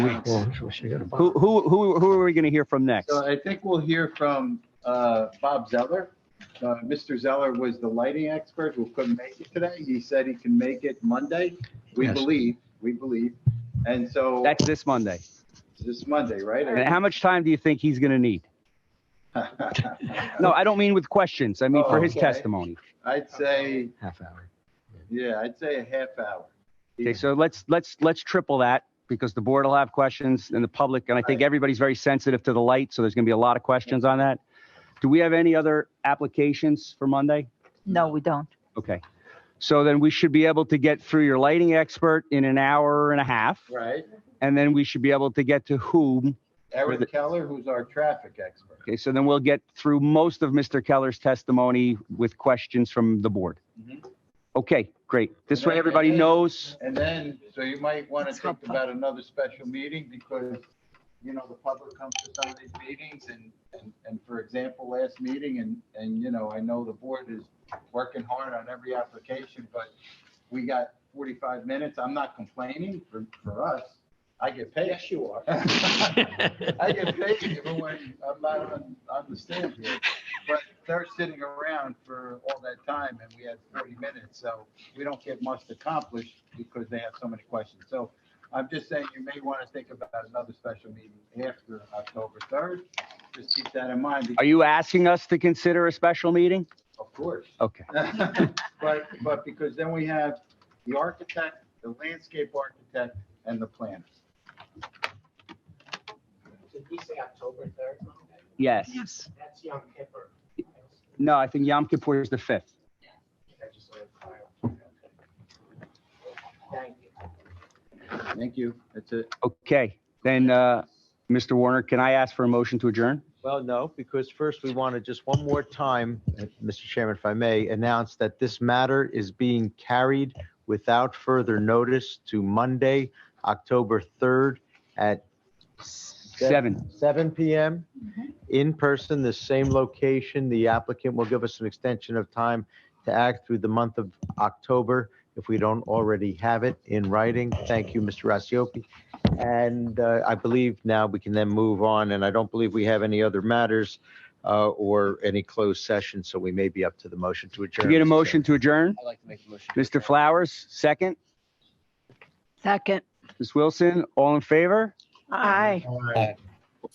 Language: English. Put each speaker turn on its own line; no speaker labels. weeks.
Oh,
Who, who, who, who are we going to hear from next?
So I think we'll hear from uh, Bob Zeller. Uh, Mr. Zeller was the lighting expert who couldn't make it today. He said he can make it Monday. We
Yes.
believe, we believe. And so
That's this Monday.
this Monday,
And
right?
how much time do you think he's going to need? No, I don't mean with questions. I mean for his
Okay.
testimony.
I'd say,
Half hour.
yeah, I'd say a half hour.
Okay, so let's, let's, let's triple that because the board will have questions and the public, and I think everybody's very sensitive to the light, so there's going to be a lot of questions on that. Do we have any other applications for Monday?
No, we don't.
Okay. So then we should be able to get through your lighting expert in an hour and a half,
Right.
and then we should be able to get to whom.
Eric Keller, who's our traffic expert.
Okay, so then we'll get through most of Mr. Keller's testimony with questions from the board.
Mhm.
Okay, great. This way
Okay.
everybody knows.
And then, so you might want to think about another special meeting because, you know, the public comes to some of these meetings and, and, and for example, last meeting and, and, you know, I know the board is working hard on every application, but we got 45 minutes. I'm not complaining for, for us. I get paid. Yes, you are. I get paid even when I'm not on, on the stand here. But they're sitting around for all that time and we had 40 minutes, so we don't get much accomplished because they have so many questions. So I'm just saying you may want to think about another special meeting after October 3rd. Just keep that in mind,
Are
because-
you asking us to consider a special meeting?
of course.
Okay,
But, but because then we have the architect, the landscape architect, and the planner.
Did we say October third?
yes.
That's Yom Kippur.
No, I think Yom Kippur is the 5th.
I just wanted to clarify. Thank you.
Thank you. That's it.
Okay, then, uh, Mr. Warner, can I ask for a motion to adjourn?
Well, no, because first we want to just one more time, uh, Mr. Chairman, if I may, announce that this matter is being carried without further notice to Monday, October 3rd at
Seven.
7 PM in person, the same location. The applicant will give us an extension of time to act through the month of October if we don't already have it in writing. Thank you, Mr. Rasiopi. And uh, I believe now we can then move on, and I don't believe we have any other matters uh, or any closed session, so we may be up to the motion to
Do
adjourn.
we get a
Mr.
motion to adjourn?
I'd like to make a motion.
Mr. Flowers, second.
Second.
Ms. Wilson, all in favor?
Aye.
Chairman.
Aye.